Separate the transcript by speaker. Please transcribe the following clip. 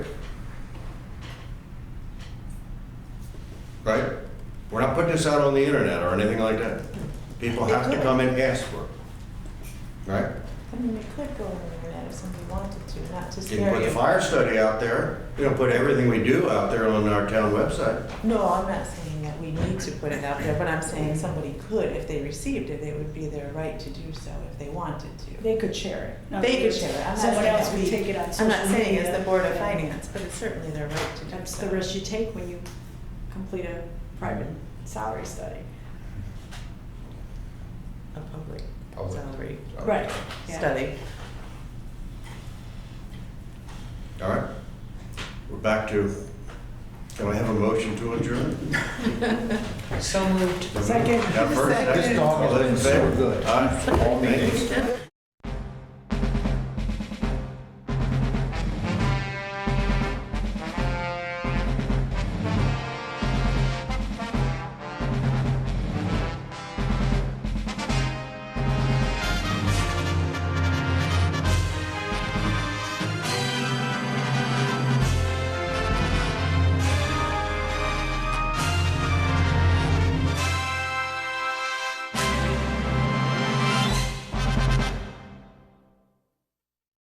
Speaker 1: right? We're not putting this out on the internet or anything like that. People have to come and ask for it, right?
Speaker 2: I mean, it could go on the internet if somebody wanted to, not to
Speaker 1: You can
Speaker 2: scare
Speaker 1: put the
Speaker 2: you.
Speaker 1: fire study out there, you know, put everything we do out there on our town website.
Speaker 2: No, I'm not saying that we need to put it out there, but I'm saying somebody could, if they received it, it would be their right to do so if they wanted to.
Speaker 3: They could share it. Not
Speaker 2: They
Speaker 3: that
Speaker 2: could
Speaker 3: we-
Speaker 2: share it. I'm not
Speaker 3: Someone
Speaker 2: saying
Speaker 3: else
Speaker 2: that
Speaker 3: would
Speaker 2: we-
Speaker 3: take it on social
Speaker 2: I'm
Speaker 3: media.
Speaker 2: not saying it's the Board of
Speaker 3: Yeah.
Speaker 2: Finance, but it's certainly their right to do so.
Speaker 3: That's the risk you take when you complete a private salary study.
Speaker 2: A public
Speaker 1: Public.
Speaker 2: salary
Speaker 3: Right. Yeah.
Speaker 2: study.
Speaker 1: All right, we're back to, can I have a motion to adjourn?
Speaker 4: So moved.
Speaker 1: Now,
Speaker 3: Second.
Speaker 1: first,
Speaker 2: Second.
Speaker 1: second.
Speaker 2: This
Speaker 4: dog
Speaker 1: All
Speaker 4: has
Speaker 1: those in
Speaker 4: been so
Speaker 1: favor?
Speaker 4: good.
Speaker 1: Aye.
Speaker 4: All
Speaker 1: Thank you.
Speaker 4: meetings.